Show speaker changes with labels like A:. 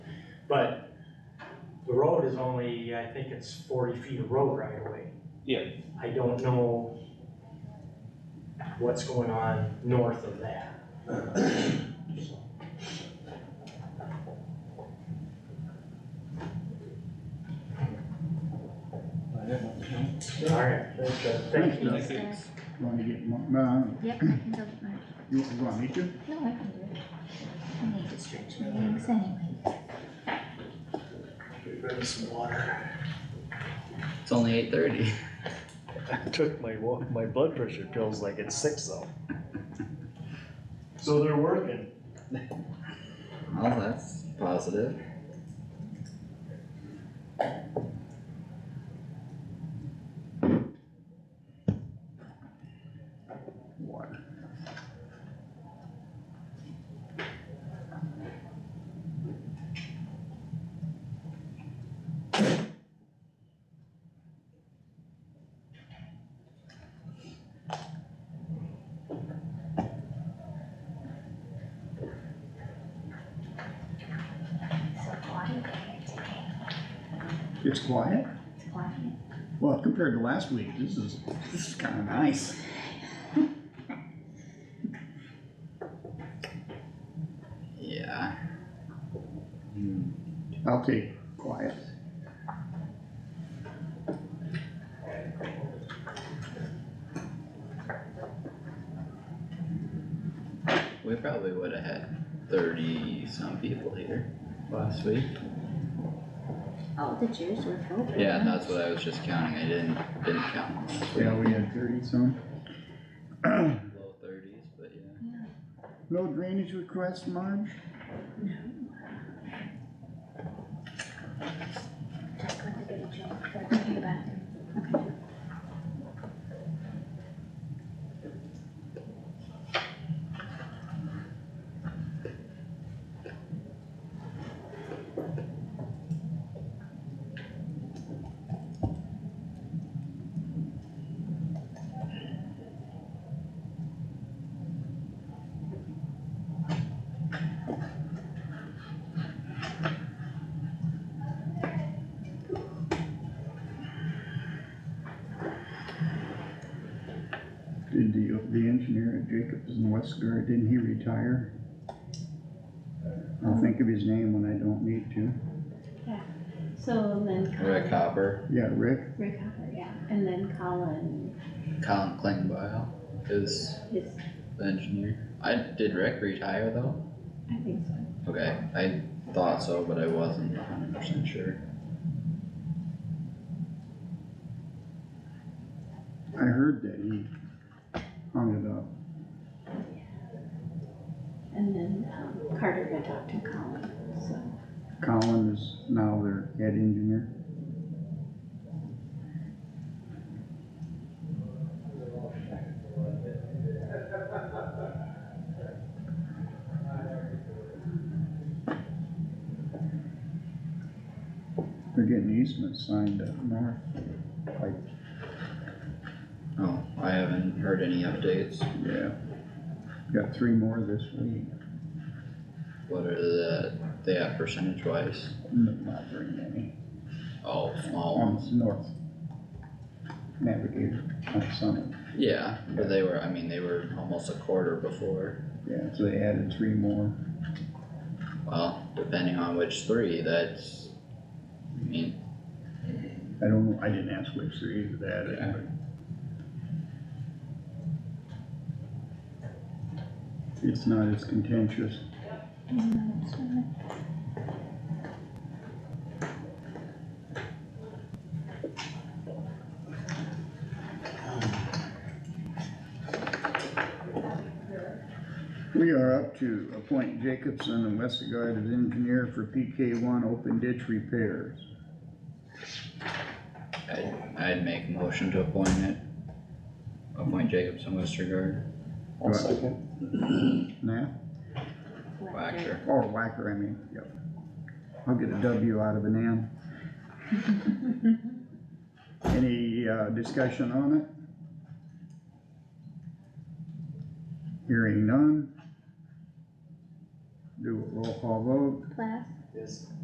A: But the road is only, I think it's forty feet of road right away.
B: Yeah.
A: I don't know what's going on north of that. Alright, thank you.
B: Thanks.
C: Want to get, more- uh,
D: Yep, I can go get mine.
C: you you want me to?
D: No, I can do it. I need to stretch my legs anyway.
E: Get rid of some water.
F: It's only eight thirty.
E: Took my, wa- my blood pressure pills like at six though.
G: So they're working.
F: Well, that's positive.
C: Water.
D: It's so quiet here today.
C: It's quiet?
D: It's quiet.
C: Well, compared to last week, this is, this is kinda nice.
F: Yeah. Hmm.
C: I'll take quiet.
F: We probably would have had thirty some people here last week.
D: All the chairs were filled. right
F: Yeah,
D: now.
F: that's what I was just counting. I didn't didn't count. last week.
C: Yeah, we had thirty some.
F: Low thirties, but yeah.
D: Yeah.
C: No drainage request, Marge?
D: Check with the good job for coming back. Okay.
C: Did the, the engineer at Jacobs and Westgard, didn't he retire? I'll think of his name when I don't need to.
H: So then Colin,
F: Rick Hopper,
C: Yeah, Rick,
H: Rick Hopper, yeah, and then Colin,
F: Colin Klingbeil is
H: his,
F: the engineer. I did Rick retire though?
H: I think so.
F: Okay, I thought so, but I wasn't hundred percent sure.
C: I heard that he hung it up.
H: And then, um, Carter had talked to Colin, so.
C: Colin is now their head engineer. They're getting easements signed up north.
F: Oh, I haven't heard any updates.
C: Yeah. Got three more this week.
F: What are the they have percentage wise?
C: No, Not very many.
F: Oh, small
C: On
F: ones.
C: north. Navigator, on Summit.
F: Yeah, but they were, I mean, they were almost a quarter before.
C: Yeah, so they added three more.
F: Well, depending on which three, that's, I mean,
C: I don't know, I didn't ask which three is that,
F: Yeah.
C: but. It's not as contentious.
D: Mm, that's fine.
C: We are up to appoint Jacobson and Westergaard as engineer for PK one open ditch repairs.
F: I'd, I'd make a motion to appoint it. Appoint Jacobson Westergaard,
C: Right.
G: second.
C: Nah,
F: Whacker.
C: or Whacker, I mean, yep. I'll get a W out of an M. Any, uh, discussion on it? Hearing none. Do a roll call vote.
D: Plath?
G: Yes.